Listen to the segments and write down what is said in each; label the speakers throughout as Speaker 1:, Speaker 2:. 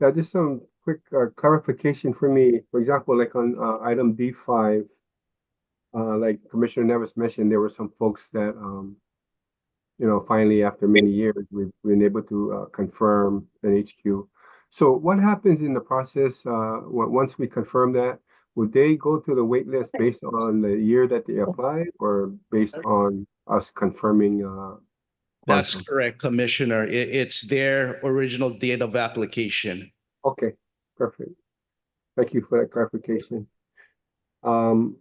Speaker 1: Yeah, just some quick uh, clarification for me. For example, like on uh, item D five, uh, like Commissioner Nevis mentioned, there were some folks that, um, you know, finally after many years, we've been able to uh, confirm an HQ. So what happens in the process, uh, on- once we confirm that? Would they go to the wait list based on the year that they applied or based on us confirming, uh?
Speaker 2: That's
Speaker 1: quantum?
Speaker 2: correct, Commissioner. I- it's their original date of application.
Speaker 1: Okay, perfect. Thank you for that clarification. Um,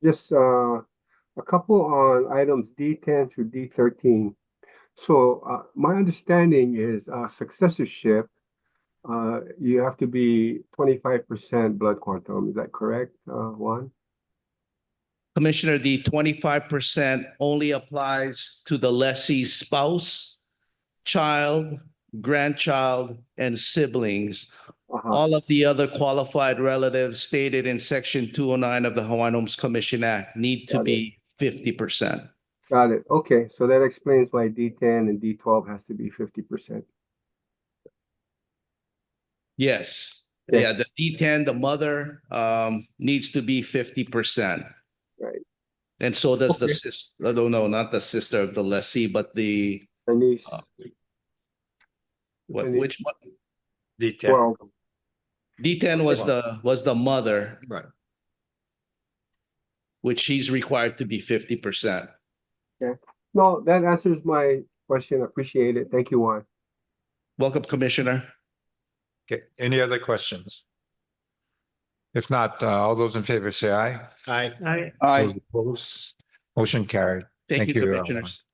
Speaker 1: just, uh, a couple on items D ten through D thirteen. So, uh, my understanding is, uh, successorship, uh, you have to be twenty-five percent blood quantum, is that correct, uh, Juan?
Speaker 2: Commissioner, the twenty-five percent only applies to the lessee's spouse, child, grandchild, and siblings.
Speaker 1: Uh-huh,
Speaker 2: All of the other qualified relatives stated in section two oh nine of the Hawaiian Homes Commission Act need to
Speaker 1: Got it.
Speaker 2: be fifty percent.
Speaker 1: got it, okay, so that explains why D ten and D twelve has to be fifty percent.
Speaker 2: Yes,
Speaker 1: Okay.
Speaker 2: yeah, the D ten, the mother, um, needs to be fifty percent.
Speaker 1: Right.
Speaker 2: And so does the
Speaker 1: Okay.
Speaker 2: sis, no, no, no, not the sister of the lessee, but the,
Speaker 1: Denise,
Speaker 2: uh, what,
Speaker 1: Denise,
Speaker 2: which one?
Speaker 3: detail.
Speaker 1: twelve,
Speaker 2: D ten was the, was the mother,
Speaker 3: Right.
Speaker 2: which she's required to be fifty percent.
Speaker 1: no, that answers my question, appreciate it, thank you, Juan.
Speaker 2: Welcome, Commissioner.
Speaker 3: Okay, any other questions? If not, uh, all those in favor say aye. Aye.
Speaker 4: I,
Speaker 3: Those opposed, motion carried.
Speaker 2: Thank you,
Speaker 3: Thank you, everyone.
Speaker 2: Commissioners.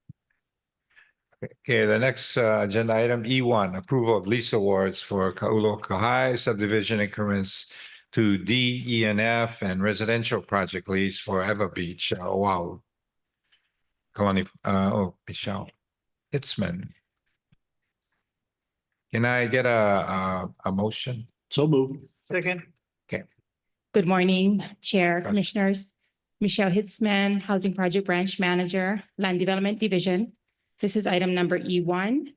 Speaker 3: Okay, the next uh, agenda item, E one, approval of lease awards for Kaulo Kahai subdivision increments to D, E, and F and residential project lease for Ever Beach, uh, Oahu. Kalani, uh, oh, Michelle Hitzman. Can I get a, a, a motion?
Speaker 2: So moved.
Speaker 4: second,
Speaker 5: Good morning, Chair,
Speaker 3: Gotcha.
Speaker 5: Commissioners. Michelle Hitzman, Housing Project Branch Manager, Land Development Division. This is item number E one.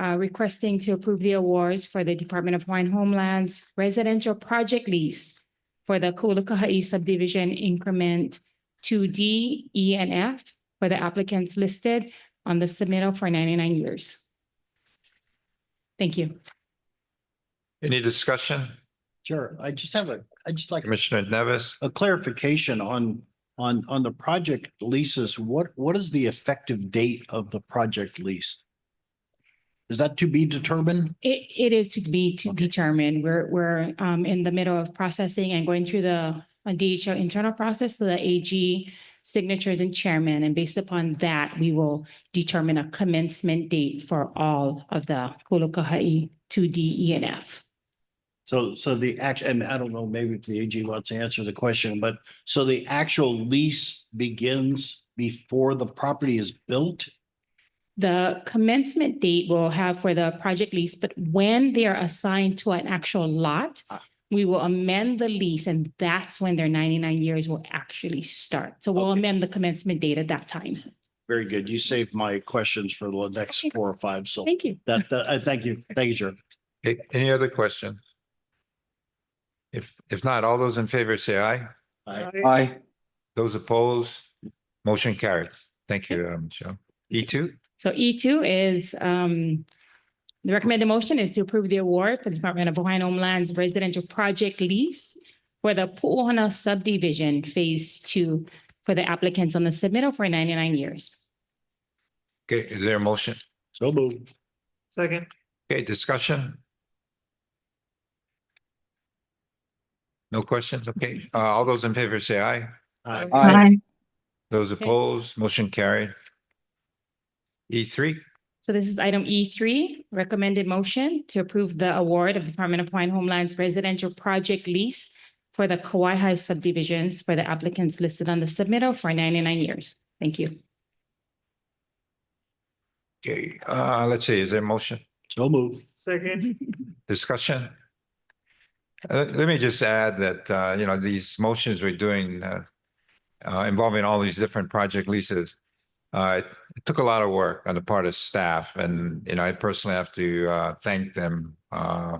Speaker 5: uh, requesting to approve the awards for the Department of Hawaiian Homeland's residential project lease for the Kulakaha'i subdivision increment two D, E, and F for the applicants listed on the submittal for ninety-nine years. Thank you.
Speaker 3: Any discussion?
Speaker 6: Sure. I just have a, I just like
Speaker 3: Commissioner Nevis?
Speaker 6: a clarification on, on, on the project leases. What, what is the effective date of the project lease? Is that to be determined?
Speaker 5: It, it is to be to determine. We're, we're um, in the middle of processing and going through the uh, DHL internal process, so the AG signatures and chairman, and based upon that, we will determine a commencement date for all of the Kolokaha'i two D E and F.
Speaker 6: So, so the act, and I don't know, maybe if the AG wants to answer the question, but so the actual lease begins before the property is built?
Speaker 5: The commencement date we'll have for the project lease, but when they are assigned to an actual lot,
Speaker 6: Ah.
Speaker 5: we will amend the lease, and that's when their ninety-nine years will actually start. So we'll
Speaker 6: Okay.
Speaker 5: amend the commencement date at that time.
Speaker 6: Very good. You saved my questions for the next four or five. So
Speaker 5: Thank you.
Speaker 6: that, that, I thank you. Thank you, Chair.
Speaker 3: Okay, Any other question? If, if not, all those in favor say aye.
Speaker 4: I,
Speaker 2: Aye.
Speaker 3: Those opposed, motion carried. Thank you, uh, Michelle. E two,
Speaker 5: So E two is, um, the recommended motion is to approve the award for the Department of Hawaiian Homeland's residential project lease for the Pu'uhana subdivision phase two for the applicants on the submittal for ninety-nine years.
Speaker 3: okay, is there a motion?
Speaker 6: So moved.
Speaker 4: second,
Speaker 3: Okay, discussion? No questions? Okay, uh, all those in favor say aye.
Speaker 6: Aye.
Speaker 3: Those opposed, motion carried. E three,
Speaker 5: So this is item E three, recommended motion to approve the award of Department of Hawaiian Homeland's residential project lease for the Kauai High subdivisions for the applicants listed on the submittal for ninety-nine years. Thank you.
Speaker 3: okay, uh, let's see, is there a motion?
Speaker 6: So moved.
Speaker 4: second,
Speaker 3: discussion? Uh, Let me just add that, uh, you know, these motions we're doing uh, uh, involving all these different project leases, uh, it took a lot of work on the part of staff and, you know, I personally have to uh, thank them uh,